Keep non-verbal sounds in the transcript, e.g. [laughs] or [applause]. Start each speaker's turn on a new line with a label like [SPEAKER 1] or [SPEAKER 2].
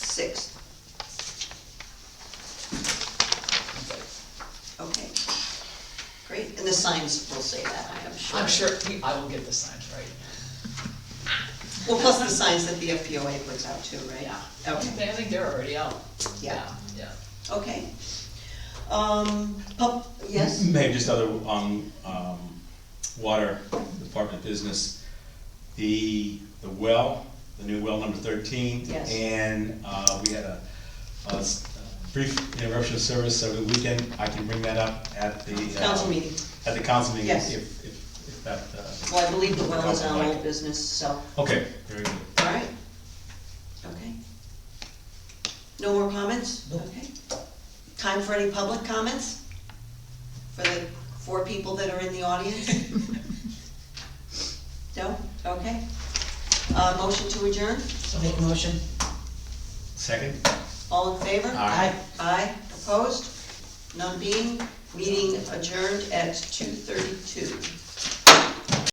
[SPEAKER 1] sixth. Okay. Great, and the signs will say that, I am sure.
[SPEAKER 2] I'm sure, we- I will get the signs right.
[SPEAKER 1] Well, plus the signs that the FPOA puts out too, right?
[SPEAKER 2] Yeah.
[SPEAKER 1] Okay,
[SPEAKER 2] They- I think they're already out.
[SPEAKER 1] Yeah.
[SPEAKER 2] Yeah.
[SPEAKER 1] okay. Um, pub, yes?
[SPEAKER 3] Maybe just other, um, um, water department business. The, the well, the new well number thirteen.
[SPEAKER 1] Yes.
[SPEAKER 3] And, uh, we had a, a s- a brief interruption of service over the weekend. I can bring that up at the. uh,
[SPEAKER 1] Council meeting.
[SPEAKER 3] At the council meeting.
[SPEAKER 1] Yes.
[SPEAKER 3] If, if, if that, uh,
[SPEAKER 1] Well, I believe the well is on old business, so,
[SPEAKER 3] okay, very good.
[SPEAKER 1] all right. Okay. No more comments? Okay. Time for any public comments? For the four people that are in the
[SPEAKER 2] [laughs]
[SPEAKER 1] audience? No? Okay. Uh, motion to adjourn?
[SPEAKER 4] So make a motion.
[SPEAKER 3] Second?
[SPEAKER 1] All in favor?
[SPEAKER 3] Aye.
[SPEAKER 1] Aye, opposed? None being, meeting adjourned at two thirty-two.